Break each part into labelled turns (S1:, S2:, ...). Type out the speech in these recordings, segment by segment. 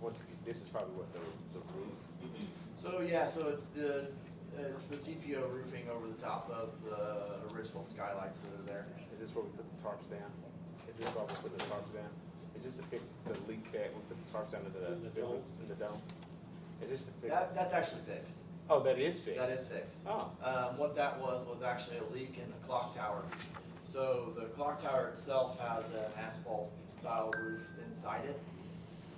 S1: what's, this is probably what the, the roof,
S2: So yeah, so it's the, it's the TPO roofing over the top of the original skylights that are there.
S1: is this where we put the tarps down? Is this where we put the tarps down? Is this to fix the leak that we put the tarps down into the,
S3: In the
S1: building,
S3: dome.
S1: in the dome? Is this to fix,
S2: That, that's actually fixed,
S1: oh, that is fixed?
S2: that is fixed.
S1: Oh,
S2: Um, what that was, was actually a leak in the clock tower. So the clock tower itself has an asphalt tile roof inside it.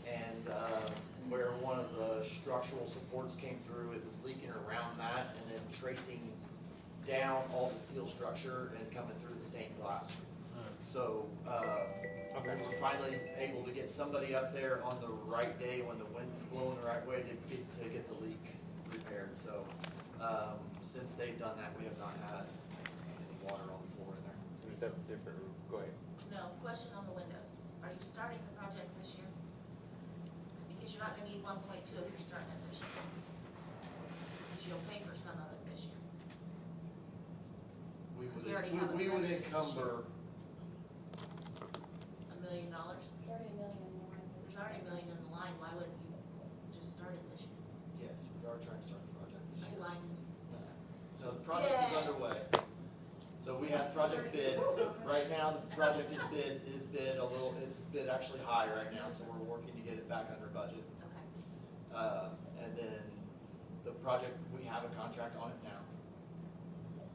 S2: And, uh, where one of the structural supports came through, it was leaking around that and then tracing down all the steel structure and coming through the stained glass. So, uh, we
S1: okay,
S2: were finally able to get somebody up there on the right day when the wind was blowing the right way to get, to get the leak repaired, so, um, since they've done that, we have not had any water on the floor in there.
S1: is that a different roof? Go ahead.
S4: No, question on the windows. Are you starting the project this year? Because you're not gonna need one point two if you're starting it this year. Because you'll pay for some of it this year.
S2: We
S4: We already
S2: would,
S4: have
S2: we, we would
S4: it.
S2: encumber,
S4: A million dollars?
S5: Thirty million more.
S4: There's already a million in the line, why wouldn't you just start it this year?
S2: yes, we are trying to start the project this
S4: Are you
S2: year.
S4: lying?
S2: So the project is underway. So we have project bid, right now, the project is bid, is bid a little, it's bid actually high right now, so we're working to get it back under budget.
S4: Okay.
S2: Um, and then the project, we have a contract on it now.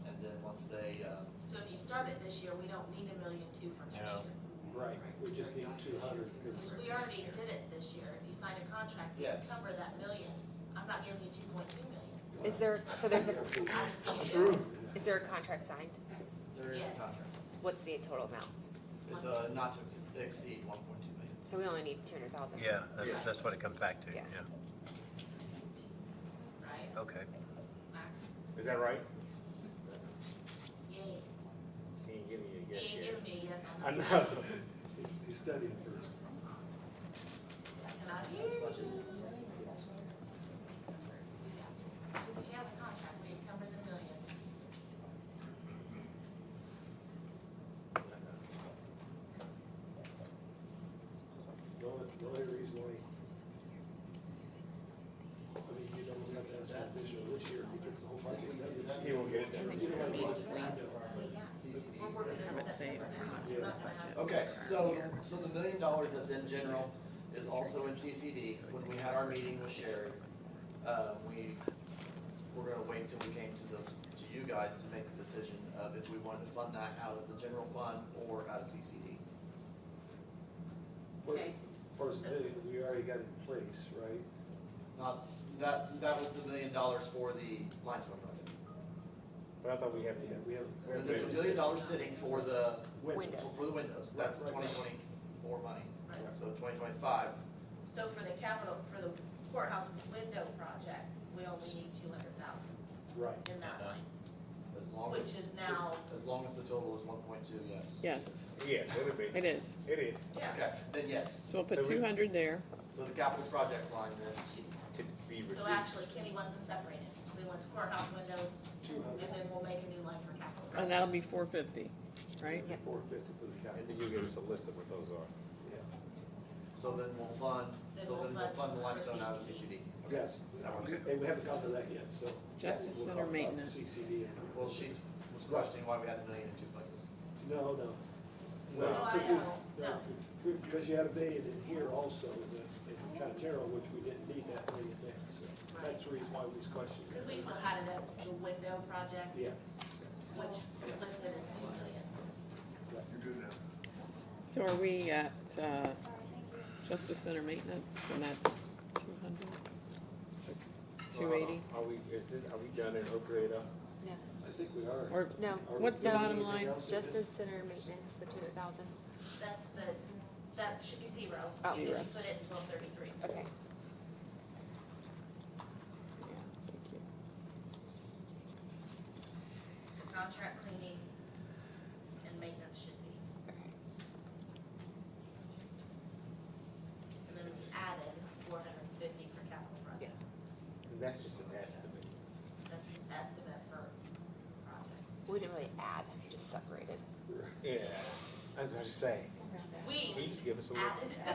S2: And then once they, um,
S4: So if you start it this year, we don't need a million two for next
S1: No.
S4: year.
S3: Right, we just need two hundred,
S4: Because we already did it this year. If you sign a contract, you
S2: Yes.
S4: encumber that million. I'm not giving you two point two million.
S6: Is there, so there's a,
S4: I'm just giving you-
S6: is there a contract signed?
S2: there is a
S4: Yes.
S2: contract.
S6: What's the total amount?
S2: It's a not to ex- exceed one point two million.
S6: So we only need two hundred thousand?
S7: Yeah, that's, that's what it comes back to,
S6: Yeah.
S7: yeah,
S4: Right?
S7: okay.
S4: Max?
S1: Is that right?
S4: Yes.
S1: He ain't giving you a
S4: He
S1: yes
S4: ain't
S1: yet.
S4: giving me a yes
S1: I
S4: on this.
S1: know.
S3: He's studying first.
S4: And I hear you. Because if you have a contract, we encumber the million.
S3: The only, the only reason why, I mean, you don't have to have that this year, this year, because the whole budget,
S1: He won't get it done.
S3: you don't have to watch Brando.
S4: We're working on September now, so we're not gonna have.
S2: Okay, so, so the million dollars that's in general is also in CCD. When we had our meeting with Sherry, uh, we, were gonna wait till we came to the, to you guys to make the decision of if we wanted to fund that out of the general fund or out of CCD.
S4: Okay,
S3: First thing, we already got it in place, right?
S2: Not, that, that was the million dollars for the limestone project.
S1: But I thought we had,
S3: Yeah, we have. we
S2: So
S3: have-
S2: there's a million dollars sitting for the,
S3: Windows.
S6: Windows.
S2: for the windows, that's twenty twenty-four money,
S4: right.
S2: so twenty twenty-five,
S4: So for the capital, for the courthouse window project, we only need two hundred thousand
S3: Right,
S4: in that line,
S2: as long
S4: which
S2: as,
S4: is now,
S2: as long as the total is one point two, yes.
S8: Yes,
S1: yeah, it'll be,
S8: it is.
S1: it is.
S4: yeah,
S2: Okay, then yes,
S8: So we'll
S1: So
S8: put
S1: we-
S8: two hundred there.
S2: so the capital projects line then,
S4: two.
S1: To be reduced.
S4: So actually, Kenny wants them separated. So he wants courthouse windows,
S3: two
S4: and
S3: hundred,
S4: then we'll make a new line for capital.
S8: And that'll be four fifty, right?
S3: four fifty for the
S1: And
S3: county,
S1: then you give us a list of what those are.
S3: yeah.
S2: so then we'll fund,
S4: Then
S2: so
S4: we'll
S2: then we'll
S4: fund
S2: fund the
S4: for
S2: limestone out of
S4: CCD.
S2: CCD.
S3: Yes, and we haven't come to that yet, so.
S8: Justice
S3: We'll
S8: Center
S3: talk about
S8: maintenance.
S3: CCD. and-
S2: Well, she was questioning why we had a million in two places.
S3: No, no.
S1: No,
S4: I know,
S3: Because you had a billion in here also, that, in kind of general, which we didn't need that million there, so that's the reason why we was questioning.
S4: Because we still had it as the window project,
S3: Yeah,
S4: which listed as two million.
S8: So are we at, uh,
S5: Sorry, thank you.
S8: Justice Center maintenance, and that's two hundred? Two eighty?
S1: Uh-huh. Are we, is this, are we done in Oak Grove?
S3: I think we are.
S8: Or
S6: No,
S3: Are we
S8: what's the
S3: doing
S8: bottom
S3: anything
S8: line?
S3: else?
S6: Justice Center maintenance, the two hundred thousand,
S4: That's the, that should be zero,
S6: Oh.
S4: because you put it in twelve thirty-three.
S6: okay.
S8: Yeah, thank you.
S4: Contract cleaning and maintenance should be. And then we added four hundred and fifty for capital projects.
S1: That's just an estimate.
S4: That's an estimate for project.
S6: We didn't really add, just separated.
S1: Yeah, that's what I was about to say.
S4: We
S1: Can you just give us a list?
S4: added